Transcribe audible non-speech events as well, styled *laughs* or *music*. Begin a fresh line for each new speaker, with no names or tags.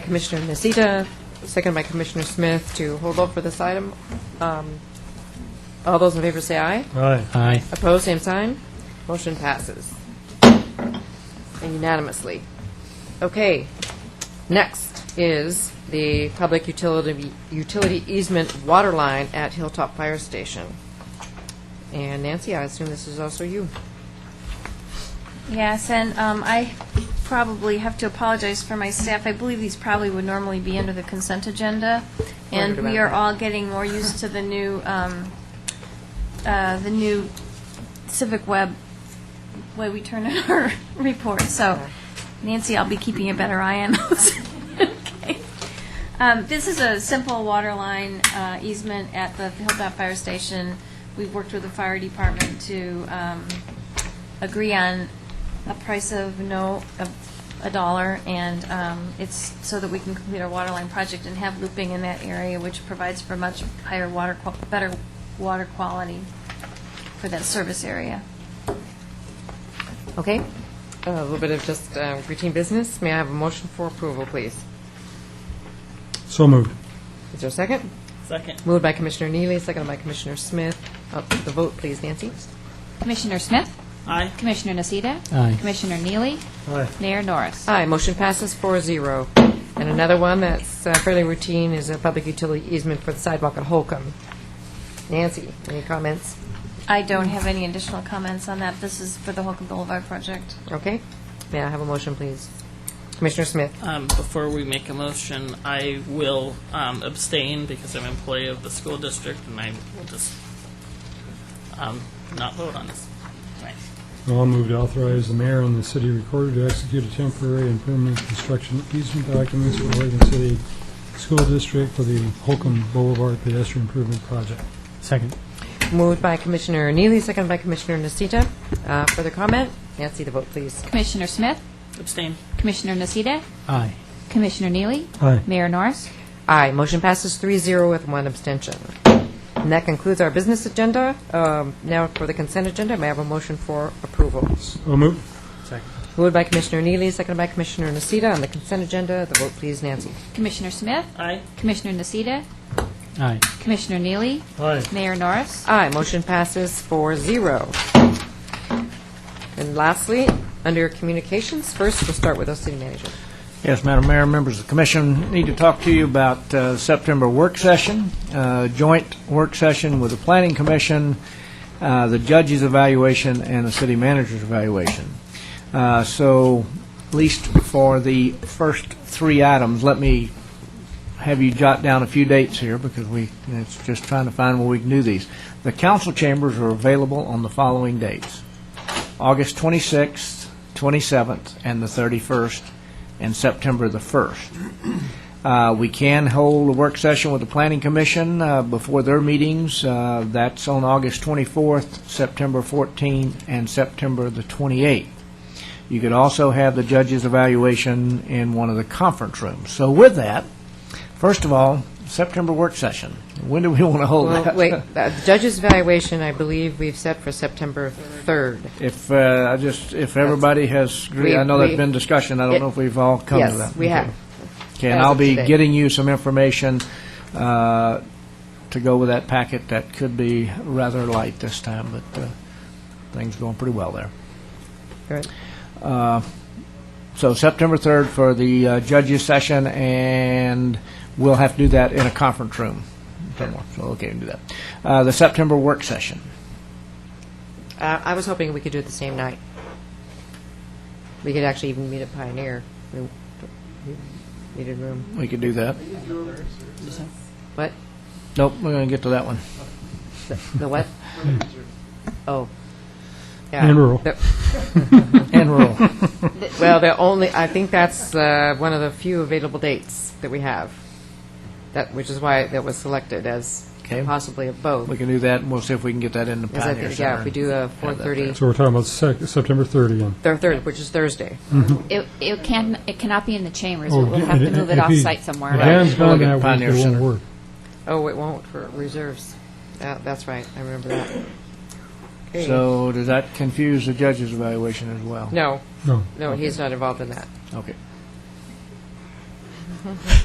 Commissioner Nocita, second by Commissioner Smith to hold off for this item. Um, All those in favor say aye.
Aye.
Aye.
Opposed, same sign. Motion passes And unanimously. Okay, next is the public utility utility easement water line at Hilltop Fire Station. And Nancy, I assume this is also you.
Yes, and um, I probably have to apologize for my staff. I believe these probably would normally be under the consent agenda, and
Wondered
we
about
are
that.
all getting more used to the new, um, uh, the new Civic Web way we turn in our *laughs* reports. So Nancy, I'll be keeping a better eye on those. *laughs* Okay. Um, This is a simple water line uh, easement at the Hilltop Fire Station. We've worked with the fire department to um, agree on a price of no, of a dollar, and um, it's so that we can complete our water line project and have looping in that area, which provides for much higher water, qual- better water quality for that service area.
Okay, a little bit of just uh, routine business. May I have a motion for approval, please?
So moved.
Is there a second?
Second.
Moved by Commissioner Neely, seconded by Commissioner Smith. Up to the vote, please, Nancy.
Commissioner Smith?
Aye.
Commissioner Nocita?
Aye.
Commissioner Neely?
Aye.
Mayor Norris?
Aye, motion passes 4-0. And another one that's uh, fairly routine is a public utility easement for the sidewalk at Holcomb. Nancy, any comments?
I don't have any additional comments on that. This is for the Holcomb Boulevard project.
Okay, may I have a motion, please? Commissioner Smith,
Um, before we make a motion, I will um, abstain because I'm an employee of the school district and I will just um, not vote on this. Right.
I'll move to authorize the mayor and the city recorder to execute a temporary and permanent construction easement documents for Oregon City School District for the Holcomb Boulevard Pedestrian Improvement Project.
Second.
moved by Commissioner Neely, seconded by Commissioner Nocita. Uh, Further comment? Nancy, the vote, please.
Commissioner Smith?
Abstain.
Commissioner Nocita?
Aye.
Commissioner Neely?
Aye.
Mayor Norris?
Aye, motion passes 3-0 with one abstention. And that concludes our business agenda. Um, Now for the consent agenda, may I have a motion for approval?
So moved.
Moved by Commissioner Neely, seconded by Commissioner Nocita. On the consent agenda, the vote, please, Nancy.
Commissioner Smith?
Aye.
Commissioner Nocita?
Aye.
Commissioner Neely?
Aye.
Mayor Norris?
Aye, motion passes 4-0. And lastly, under communications, first, we'll start with our city manager.
Yes, Madam Mayor, members of the commission, need to talk to you about uh, September work session, uh, joint work session with the planning commission, uh, the judge's evaluation, and the city manager's evaluation. Uh, So, at least for the first three items, let me have you jot down a few dates here because we, it's just trying to find where we can do these. The council chambers are available on the following dates. August 26th, 27th, and the 31st, and September the 1st. Uh, We can hold a work session with the Planning Commission uh, before their meetings. Uh, That's on August 24th, September 14th, and September the 28th. You could also have the judge's evaluation in one of the conference rooms. So with that, first of all, September work session. When do we *laughs* want to hold that?
Well, wait, uh, judge's evaluation, I believe we've set for September 3rd.
If, uh, I just, if everybody has, agreed- I know
We- we-
there's been discussion, I
It-
don't know if we've all come to that.
Yes, we have.
Okay, and
as
I'll
of
be
today.
getting you some information uh, to go with that packet that could be rather light this time, but uh, things going pretty well there.
Good.
So September 3rd for the uh, judges session, and we'll have to do that in a conference room somewhere, so okay, we can do that. Uh, The September work session,
Uh, I was hoping we could do it the same night. We could actually even meet at Pioneer. We- we Needed room.
we could do that.
What?
Nope, we're going to get to that one.
The the what? Oh. Yeah.
And rural.
*laughs* The-
And roll.
Well, the only, I think that's uh, one of the few available dates that we have, that, which is why that was selected as
Okay.
possibly a vote.
We can do that, and we'll see if we can get that in the
Because I
Pioneer
think,
Center.
yeah, if we do a
and have that there.
4:30,
So we're talking about sec- September 30 again.
thir- third, which is Thursday.
It, it can't, it cannot be in the chambers.
Oh,
We'll have to move it
if he-
off-site somewhere.
If Dan's
We'll
gone
look at
that week,
Pioneer
it won't
Center.
work.
Oh, it won't for reserves. That- That's right, I remember that. Okay.
So does that confuse the judge's evaluation as well?
No,
No.
no, he's not involved in that.
Okay.